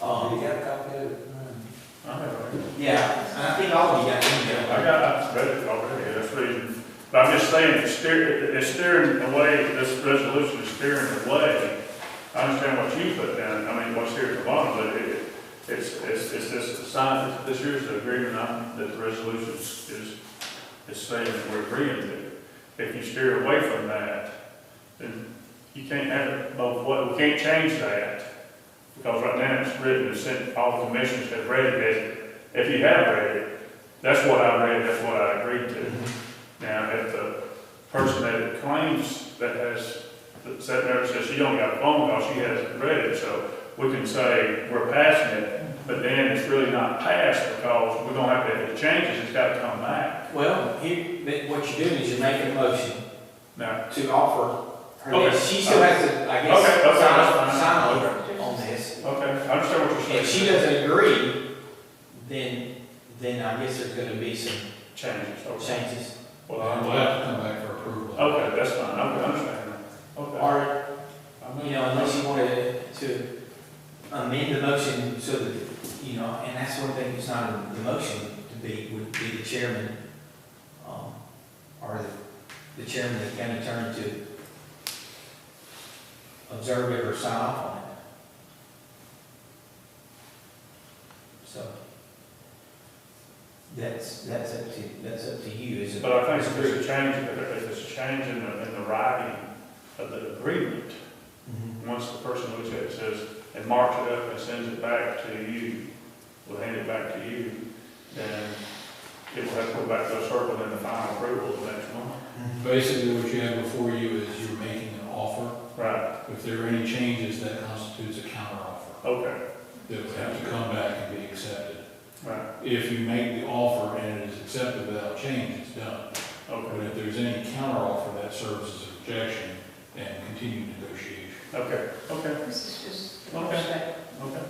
Um, got a copy of it? I have it. yeah, and I think all of you got in there. I got, I've read it already, that's reading, but I'm just saying, it's steering, it's steering away, this resolution is steering away. I understand what you put down, I mean, what's here at the bottom, but it, it's, it's, it's this sign, this here's the agreement, not that the resolution is, is saying that we're agreeing to. If you steer away from that, then you can't have it both, wa- we can't change that. Because right now it's written, it's sent, all the commissioners have read it, if you have read it, that's what I read, that's what I agreed to. Now, if the person that claims that has, that sat there and says she don't got a phone call, she hasn't read it, so we can say we're passing it, but then it's really not passed because we're gonna have to, if it changes, it's gotta come back. Well, you, but what you're doing is you're making a motion Now, to offer her Okay. this. She still has to, I guess, Okay, okay, that's sign, fine. sign over on this. okay, I understand what you're If she saying, doesn't agree, then, then I guess there's gonna be some changes, okay. changes. Well, Well, we'll I'm- have to come back for approval. Okay, that's fine, okay, I understand that, okay. Or, I'm- you know, unless you wanted to amend the motion so that, you know, and that's one thing that's not in the motion to be, would be the chairman, um, or the- the chairman, the county attorney to observe it or sign off on it. So, that's, that's up to, that's up to you, is it? But I think if there's a change, if there's a change in the, in the writing of the agreement, Mhm. once the person looks at it, says, and marks it up and sends it back to you, will hand it back to you, then it will have to go back to a circle in the final approval the next month. Mm-hmm. Basically, what you have before you is you're making an offer. Right, If there are any changes, that constitutes a counteroffer okay, that would have to come back and be accepted. right, If you make the offer and it is accepted without change, it's done. But okay, if there's any counteroffer, that serves as a rejection and continued negotiation. okay, okay, This is just. Okay. okay.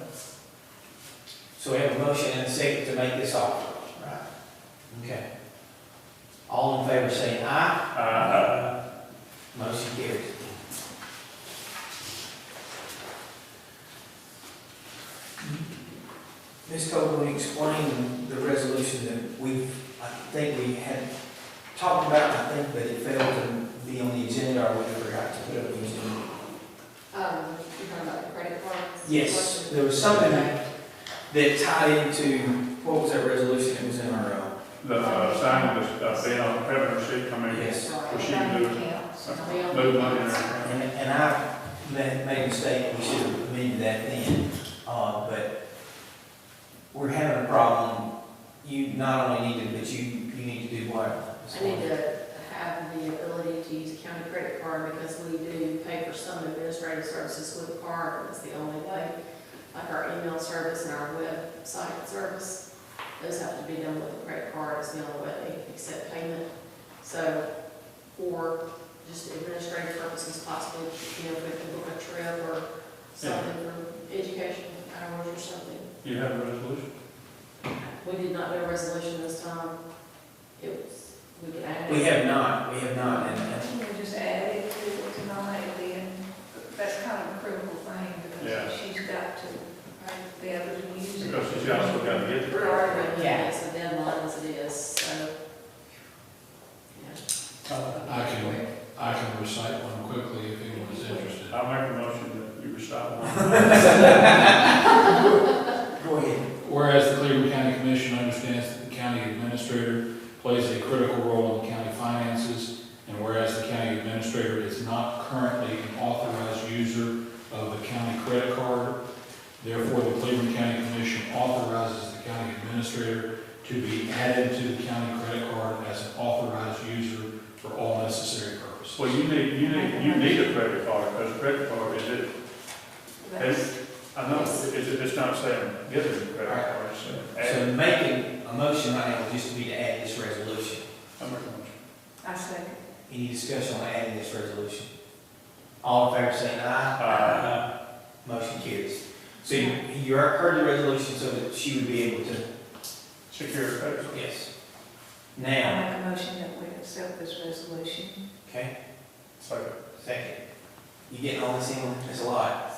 So we have a motion and a second to make this offer. Right. Okay. All in favor say aye. Uh, Motion carries. Ms. Copeland, explain the resolution that we, I think we had talked about, I think, but it failed to be on the agenda or we forgot to put it on the agenda. Um, you're talking about the credit cards? Yes, there was something that tied into, what was that resolution that was in our, uh, the, uh, sign was, uh, being on the credit sheet, I mean, yes. Well, she Bank moved- accounts, uh, bill move money accounts. around. And, and I ma- made a mistake, we should have amended that then, uh, but we're having a problem. You not only need to, but you, you need to do what? I need to have the ability to use a county credit card because we do pay for some administrative services with a card, and it's the only way. Like our email service and our website service, those have to be done with a credit card, it's the only way they accept payment. So, for just administrative purposes possibly, you know, if we can book a trip or something for education hours or something. You have a resolution? We did not do a resolution this time. It was, we could add. it. We have not, we have not, and, and Can we just add it to it tonight, and then, that's kind of a critical thing, Yeah. because she's got to Right. be able to use it. Because she's also got to get the We're credit. already, Yeah. yeah, it's a deadline as it is, so. yeah. Uh, I can, I can recite one quickly if anyone's interested. I make a motion that you recite one. go ahead. Whereas the Cleveland County Commission understands that the county administrator plays a critical role in the county finances, and whereas the county administrator is not currently an authorized user of the county credit card, therefore the Cleveland County Commission authorizes the county administrator to be added to the county credit card as an authorized user for all necessary purposes. Well, you need, you need, you need a credit card, because a credit card is it, That's- I know, is it, it's not saying get a credit card, it's saying add. So making a motion right now would just be to add this resolution. I'm making a motion. I second. Any discussion on adding this resolution? All in favor saying aye? Aye. Motion carries. So you, you heard the resolution so that she would be able to, Secure a credit card. yes. I Now, make a motion that we accept this resolution. okay? Second. Second. You getting all this in, that's a lot.